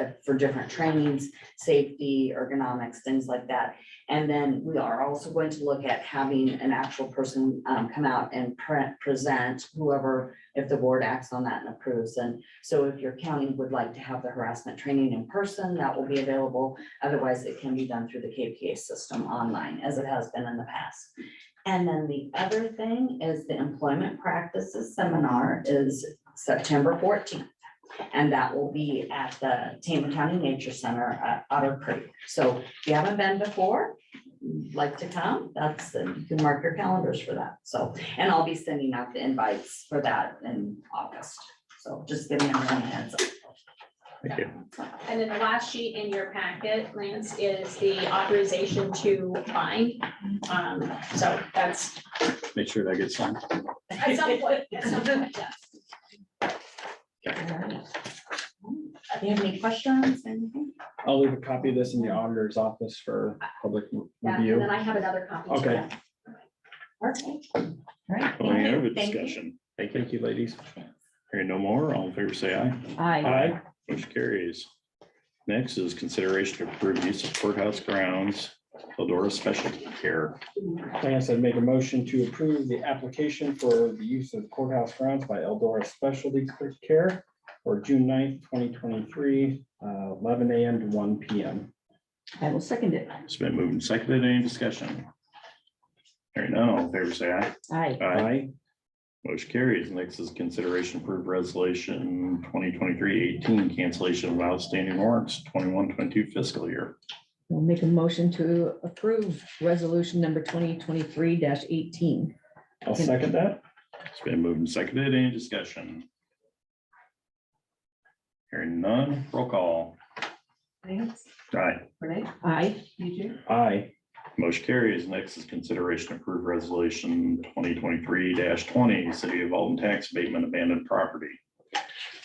uh, for different trainings, safety, ergonomics, things like that. And then we are also going to look at having an actual person um, come out and print, present whoever, if the board acts on that and approves. And so if your county would like to have the harassment training in person, that will be available. Otherwise, it can be done through the KPA system online, as it has been in the past. And then the other thing is the employment practices seminar is September fourteenth. And that will be at the Tama County Nature Center at Otter Creek. So if you haven't been before, like to come, that's, you can mark your calendars for that. So, and I'll be sending out the invites for that in August. So just giving everyone a heads up. Thank you. And then the last sheet in your packet, Lance, is the authorization to bind. Um, so that's Make sure that gets signed. at some point, at some point, yes. Do you have any questions? Anything? I'll leave a copy of this in the auditor's office for public Yeah, and review. then I have another copy. too. Okay. Okay. All right. Any other Thank you. discussion? Thank you. Thank you, ladies. Hearing no more, all in favor, say aye. Aye. Motion carries. Next is consideration to approve use of courthouse grounds, Eldora Specialty Care. Lance, I'd make a motion to approve the application for the use of courthouse grounds by Eldora Specialty Care for June 9th, twenty twenty-three, uh, eleven AM to one PM. I will second it. It's been moved and seconded. Any discussion? Hearing none, all in favor, say aye. Aye. Aye. Motion carries. Next is consideration to approve resolution 2023-18 cancellation of outstanding warrants, 21-22 fiscal year. We'll make a motion to approve resolution number twenty twenty-three eighteen. I'll second that. It's been moved and seconded. Any discussion? Hearing none, roll call. Lance, Aye. Renee, Aye. you do. Aye. Motion carries. Next is consideration to approve resolution twenty twenty-three twenty, city of Alton tax abatement abandoned property.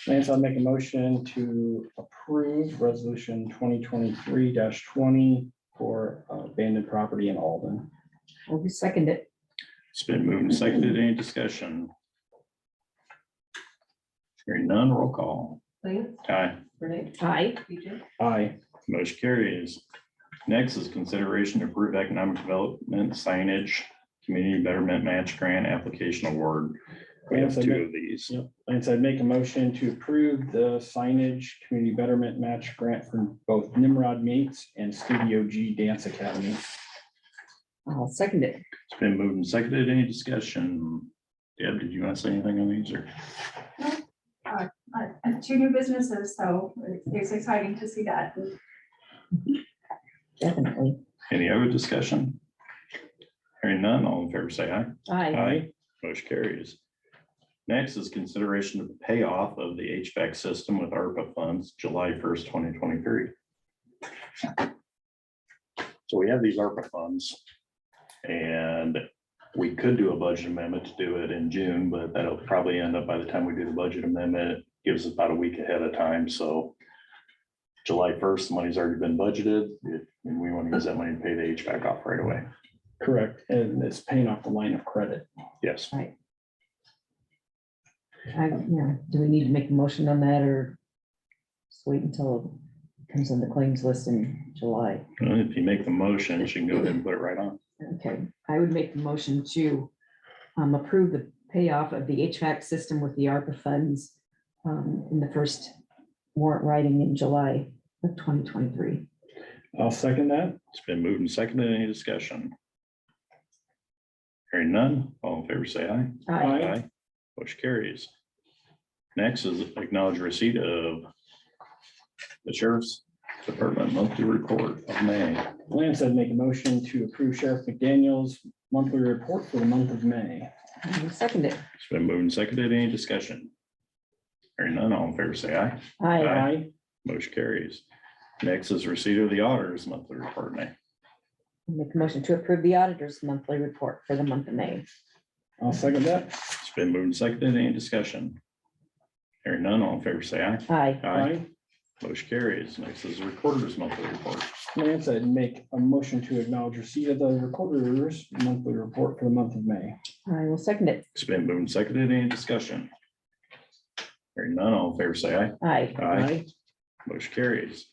Lance, I'll make a motion to approve resolution twenty twenty-three twenty for uh, abandoned property in Alden. I will second it. It's been moved and seconded. Any discussion? Hearing none, roll call. Lance, Aye. Renee, Aye. you do. Aye. Motion carries. Next is consideration to approve economic development signage, community betterment match grant application award. We have two of these. Lance, I'd make a motion to approve the signage community betterment match grant from both Nimrod Meets and Studio G Dance Academy. I'll second it. It's been moved and seconded. Any discussion? Deb, did you want to say anything on these or? uh, two new businesses, so it's- it's exciting to see that. Definitely. Any other discussion? Hearing none, all in favor say aye. Aye. Aye. Motion carries. Next is consideration of payoff of the HVAC system with ARPA funds July first, twenty twenty-three. So we have these ARPA funds. And we could do a budget amendment to do it in June, but that'll probably end up by the time we do the budget amendment, it gives us about a week ahead of time, so. July first, money's already been budgeted, and we want to use that money to pay the HVAC off right away. Correct, and it's paying off the line of credit. Yes. I, yeah, do we need to make a motion on that or just wait until it comes on the claims list in July? Well, If you make the motion, she can go ahead and put it right on. Okay, I would make the motion to um, approve the payoff of the HVAC system with the ARPA funds um, in the first warrant writing in July of twenty twenty-three. I'll second that. It's been moved and seconded. Any discussion? Hearing none, all in favor, say aye. Aye. Aye. Motion carries. Next is acknowledge receipt of the sheriff's department monthly report of May. Lance, I'd make a motion to approve Sheriff McDaniel's monthly report for the month of May. I will Second it. It's been moved and seconded. Any discussion? Hearing none, all in favor, say aye. Aye. Aye. Motion carries. Next is receipt of the auditor's monthly report of May. Make a motion to approve the auditor's monthly report for the month of May. I'll second that. It's been moved and seconded. Any discussion? Hearing none, all in favor, say aye. Aye. Aye. Motion carries. Next is the recorder's monthly report. Lance, I'd make a motion to acknowledge receipt of the recorder's monthly report for the month of May. I will second it. It's been moved and seconded. Any discussion? Hearing none, all in favor, say aye. Aye. Aye. Motion carries.